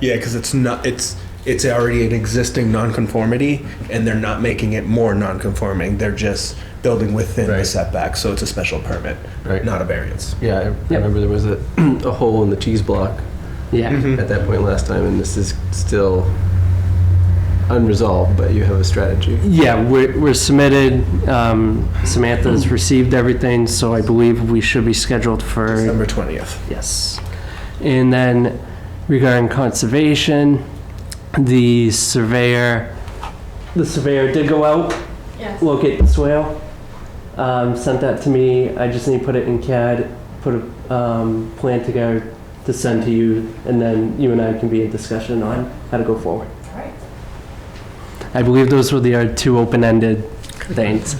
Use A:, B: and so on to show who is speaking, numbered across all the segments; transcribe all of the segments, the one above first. A: Yeah, because it's not it's it's already an existing nonconformity, and they're not making it more nonconforming. They're just building within the
B: Right.
A: setback, so it's a special permit,
B: Right.
A: not a variance.
B: Yeah, I I
C: Yep.
B: remember there was a, a hole in the cheese block
C: Yeah.
B: at that point last time, and this is still unresolved, but you have a strategy.
C: Yeah, we're, we're submitted. Um, Samantha's received everything, so I believe we should be scheduled for,
A: December twentieth.
C: yes. And then regarding conservation, the surveyor, the surveyor did go out,
D: Yes.
C: locate the swale, um, sent that to me. I just need to put it in CAD, put a, um, plan together to send to you, and then you and I can be in discussion on how to go forward.
D: All right.
C: I believe those were the uh, two open-ended things.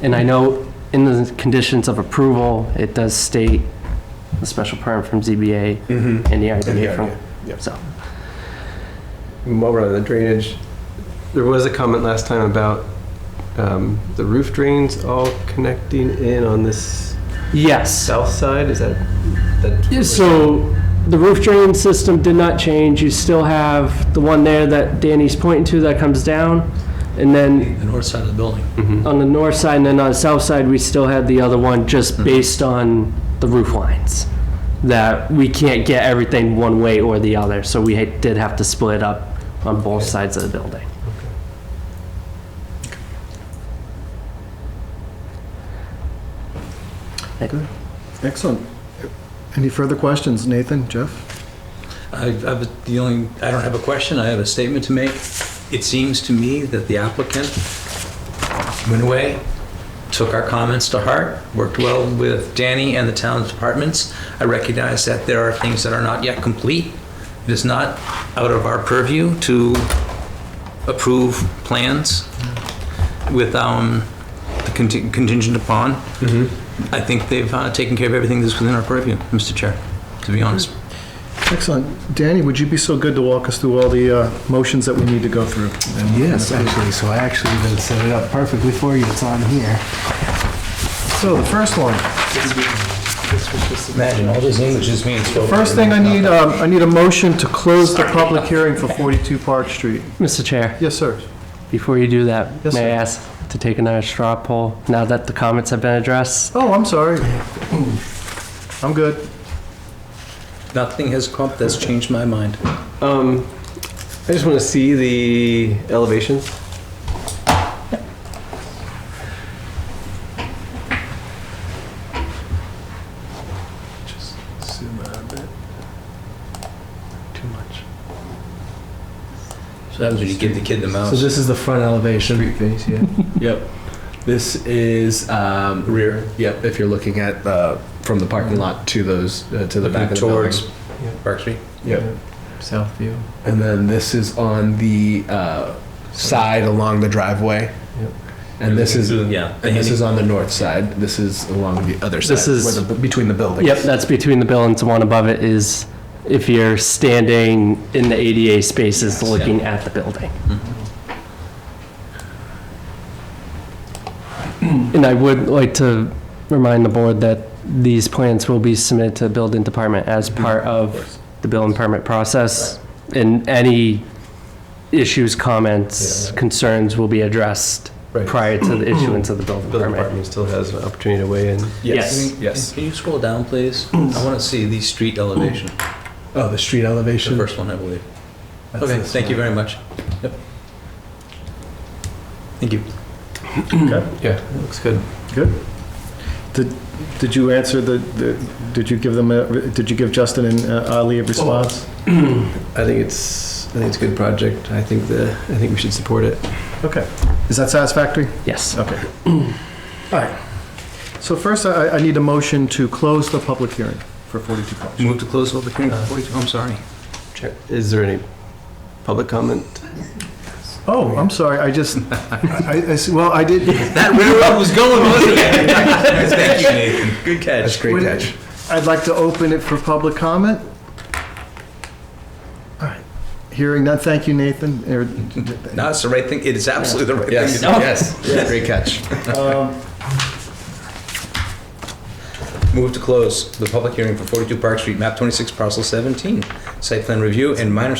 C: And I know in the conditions of approval, it does state a special permit from ZBA
A: Mm-hmm.
C: and the
A: And the
C: RDA
A: RDA,
C: from,
A: yep.
C: so.
B: And While we're on the drainage, there was a comment last time about um, the roof drains all connecting in on this
C: Yes,
B: south side, is that?
C: Yeah,
B: that-
C: so the roof drain system did not change. You still have the one there that Danny's pointing to that comes down. And then
E: the north side of the building.
B: Mhm.
C: on the north side and then on the south side, we still had the other one just based on the roof lines. That we can't get everything one way or the other, so we ha- did have to split up on both sides of the building.
F: Excellent. Any further questions, Nathan, Jeff?
E: I have the only, I don't have a question, I have a statement to make. It seems to me that the applicant went away, took our comments to heart, worked well with Danny and the town's departments. I recognize that there are things that are not yet complete. It is not out of our purview to approve plans with um, the conti- contingent upon. I think they've uh, taken care of everything that's within our purview, Mr. Chair, to be honest.
F: Excellent. Danny, would you be so good to walk us through all the uh, motions that we need to go through?
G: Yes, actually, so I actually even set it up perfectly for you, it's on here.
F: So the first one,
E: Imagine, all this English is being spoken.
F: first thing I need, um, I need a motion to close the public hearing for 42 Park Street.
C: Mr. Chair,
F: Yes, sir.
C: before you do that,
F: Yes,
C: may I
F: sir.
C: ask to take another straw poll now that the comments have been addressed?
F: Oh, I'm sorry. I'm good.
E: Nothing has come, that's changed my mind.
B: Um, I just want to see the elevations.
E: So that was when you give the kid the
G: So
E: mouse.
G: this is the front elevation.
B: face, yeah.
G: Yep. This is, um,
A: Rear.
G: yep, if you're looking at, uh, from the parking lot to those, uh, to the back
E: Mm-hmm. Looking
G: of the building.
E: towards Park Street.
G: Yep. South view.
A: And then this is on the uh, side along the driveway.
G: Yep.
A: And this is
E: Yeah.
A: and this is on the north side. This is along the other side.
C: This is-
A: where the, between the buildings.
C: Yep, that's between the buildings, the one above it is if you're standing in the ADA spaces
E: Yes, yeah.
C: looking at the building.
B: Mm-hmm.
C: And I would like to remind the board that these plans will be submitted to the building department as
B: Mm-hmm.
C: part of the building permit process. And any issues, comments, concerns will be addressed
B: Right.
C: prior to the issuance of the building
B: Building
C: permit.
B: department still has an opportunity to weigh in.
C: Yes.
G: Yes.
E: Can you scroll down, please? I want to see the street elevation,
G: Oh, the street
E: the
G: elevation.
E: first one, I believe.
G: That's
E: Okay,
G: this
E: thank you
G: one.
E: very much. Yep. Thank you.
B: Yeah, it looks good.
F: Did you answer the, the? did you give them, a- did you give Justin and uh, Ali a response?
B: I think it's, I think it's a good project. I think the, I think we should support it.
F: Okay. Is that satisfactory?
C: Yes.
F: Okay. All right. So first, I, I need a motion to close the public hearing for 42 Park Street.
E: Move to close public hearing. I'm sorry.
B: Check. Is there any public comment?
F: Oh, I'm sorry, I just, I, I see- well, I did,
E: That railroad was going, wasn't it? Thank you, Nathan. Good
A: That's
E: catch.
A: great catch.
F: I'd like to open it for public comment. All right, hearing none, thank you, Nathan. Er,
E: No, it's the right thing. It is absolutely the right thing to
G: Yes,
E: do.
G: yes, great catch.
E: Move to close the public hearing for 42 Park Street, map 26, parcel 17, site plan review and minor